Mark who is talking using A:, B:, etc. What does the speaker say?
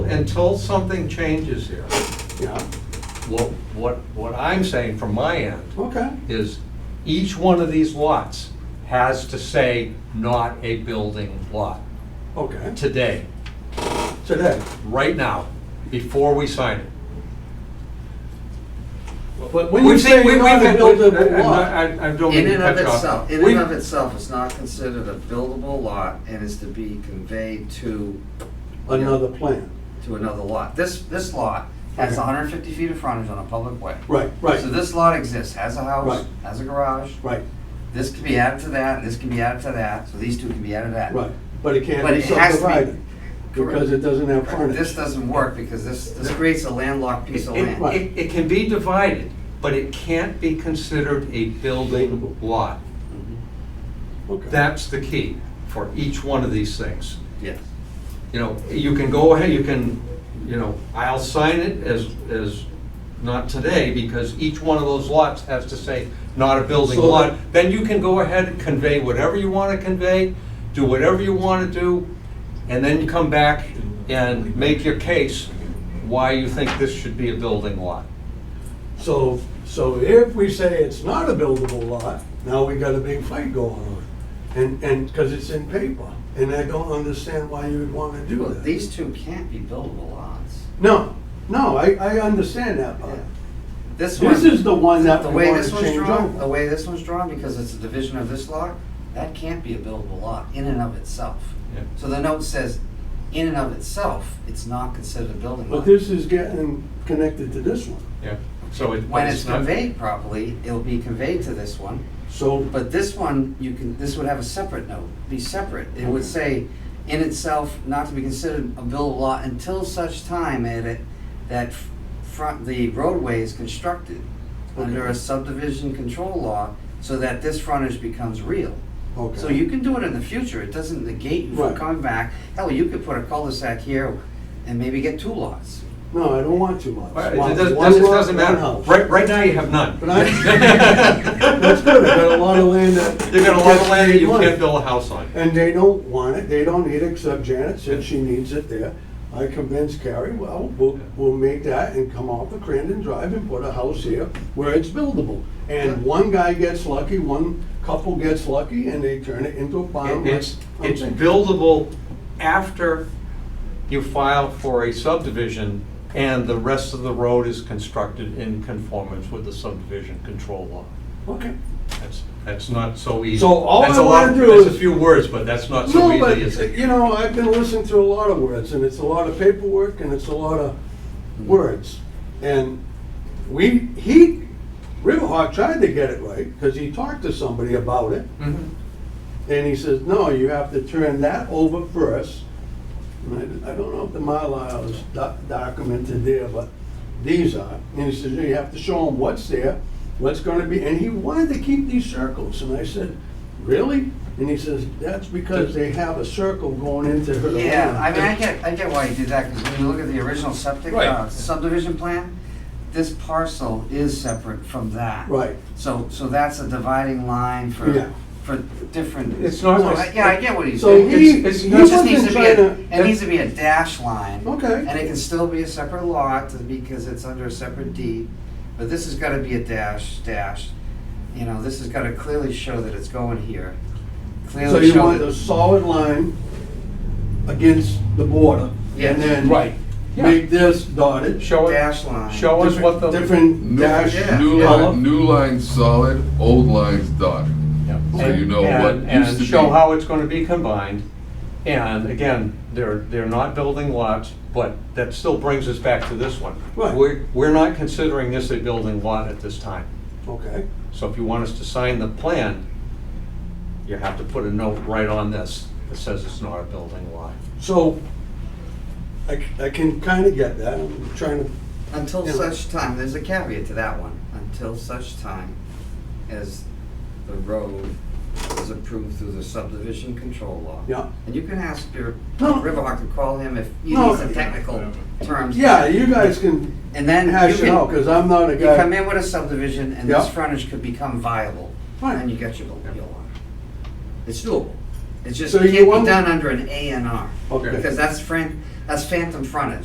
A: until something changes here,
B: Yeah,
A: what, what, what I'm saying from my end
B: okay.
A: is each one of these lots has to say not a building lot
B: Okay,
A: today,
B: today.
A: right now, before we sign it.
B: But when you
A: We've seen-
B: say
A: we-
B: you're not a
A: we've-
B: buildable
A: I'm not-
B: lot,
A: I, I don't mean
C: In
A: to
C: and of
A: cut you off.
C: itself, in and
A: We've-
C: of itself, it's not considered a buildable lot and is to be conveyed to,
B: another plan.
C: to another lot. This, this lot has
B: Okay.
C: hundred and fifty feet of frontage on a public way.
B: Right, right,
C: So this lot exists, has a house,
B: Right.
C: has a garage,
B: right,
C: this can be added to that, and this can be added to that, so these two can be added to that.
B: right. But it can't
C: But
B: be
C: it has to be-
B: subdivided because it doesn't have
C: Correct. This
B: frontage.
C: doesn't work because this, this creates a landlocked piece of
A: It,
C: land.
B: Right.
A: it- it can be divided, but it can't be considered a building lot.
B: Okay.
A: That's the key for each one of these things.
C: Yes.
A: You know, you can go ahead, you can, you know, I'll sign it as, as, not today, because each one of those lots has to say, not a building
B: So-
A: lot. Then you can go ahead and convey whatever you want to convey, do whatever you want to do, and then you come back and make your case why you think this should be a building lot.
B: So, so if we say it's not a buildable lot, now we got a big fight going on. And, and, because it's in paper, and I don't understand why you would want to do
C: Well,
B: that.
C: these two can't be buildable lots.
B: No, no, I, I understand that part.
C: Yeah. This one.
B: This is the one that
C: The
B: we
C: way
B: want
C: this
B: to
C: one's
B: change
C: drawn, the
B: over.
C: way this one's drawn, because it's a division of this lot, that can't be a buildable lot in and of itself.
A: Yeah.
C: So the note says, in and of itself, it's not considered a building
B: But
C: lot.
B: this is getting connected to this one.
A: Yeah, so it.
C: When it's
A: not-
C: conveyed properly, it'll be conveyed to this one,
B: So,
C: but this one, you can, this would have a separate note, be separate. It would say, in itself, not to be considered a buildable lot until such time that it, that f- front, the roadway is constructed under a
B: Okay.
C: subdivision control law, so that this frontage becomes real.
B: okay.
C: So you can do it in the future, it doesn't negate you from
B: Right.
C: coming back. Hell, you could put a cul-de-sac here and maybe get two lots.
B: No, I don't want too much.
A: All right,
B: Want
A: It doesn't,
B: one
A: doesn't-
B: lot,
A: doesn't
B: one
A: matter.
B: house.
A: Right, right now you have none.
B: But I- That's good, I got a lot of land that.
A: You're gonna love land that you
B: Money.
A: can't build a house on.
B: And they don't want it, they don't need it, except Janet said she needs it there. I convinced Carrie, well, we'll, we'll make that and come off the Crandon Drive and put a house here where it's buildable. And one guy gets lucky, one couple gets lucky, and they turn it into a farm.
A: It- It's,
B: I'm
A: it's
B: thinking-
A: buildable after you file for a subdivision and the rest of the road is constructed in conformance with the subdivision control law.
B: Okay.
A: That's, that's not so easy.
B: So all
A: That's
B: I
A: a lot-
B: wanna do
A: That's
B: is-
A: a few words, but that's not so
B: No, but,
A: easy, is it?
B: you know, I've been listening to a lot of words, and it's a lot of paperwork, and it's a lot of words. And we, he, Riverhawk tried to get it right, because he talked to somebody about it,
A: Mhm.
B: and he says, no, you have to turn that over first. And I I don't know if the Mylar is doc- documented there, but these are. And he says, you have to show them what's there, what's gonna be, and he wanted to keep these circles. And I said, really? And he says, that's because they have a circle going into her land.
C: Yeah, I mean, I get, I get why you did that, because when you look at the original septic, uh,
A: Right.
C: subdivision plan, this parcel is separate from that.
B: Right,
C: So, so that's a dividing line
B: Yeah.
C: for, for different.
A: It's not
C: So,
A: like-
C: I- Yeah, I get what he's
B: So
C: saying.
B: he-
C: It's-
B: he
C: It just needs
B: wasn't
C: to be, a-
B: trying to-
C: it needs to be a dash line.
B: Okay.
C: And it can still be a separate lot to- because it's under a separate deed, but this has gotta be a dash, dash. You know, this has gotta clearly show that it's going here.
B: so
C: Clearly
B: you
C: show
B: want a
C: that,
B: solid line against the border.
C: Yeah.
B: And then.
A: Right. Yeah.
B: Make this dotted,
A: Show us,
C: dash line.
A: show us what the.
B: different
D: New,
B: dash.
C: yeah.
D: new
B: color.
D: line, new line solid, old lines dotted. So you know what
A: And-
D: used to
A: And show
D: be.
A: how it's gonna be combined. And again, they're, they're not building lots, but that still brings us back to this one.
B: Right.
A: We're, we're not considering this a building lot at this time.
B: Okay,
A: So if you want us to sign the plan, you have to put a note right on this that says it's not a building lot.
B: so I, c- I can kind of get that, I'm trying to
C: Until
B: Yeah.
C: such time, there's a caveat to that one, until such time as the road is approved through the subdivision control law.
B: Yeah.
C: And you can ask your
B: No.
C: Riverhawk to call him if you
B: No.
C: need some technical terms.
B: Yeah, you guys can
C: And then you
B: hash it out,
C: can,
B: because I'm not a
C: you come
B: guy.
C: in with a subdivision and
B: Yeah.
C: this frontage could become viable.
B: Right.
C: And then you get your, your lot. It's doable. It's just,
B: So
C: it
B: you
C: can't
B: want-
C: be done under an A and R.
B: Okay.
C: Because that's fran, that's phantom frontage.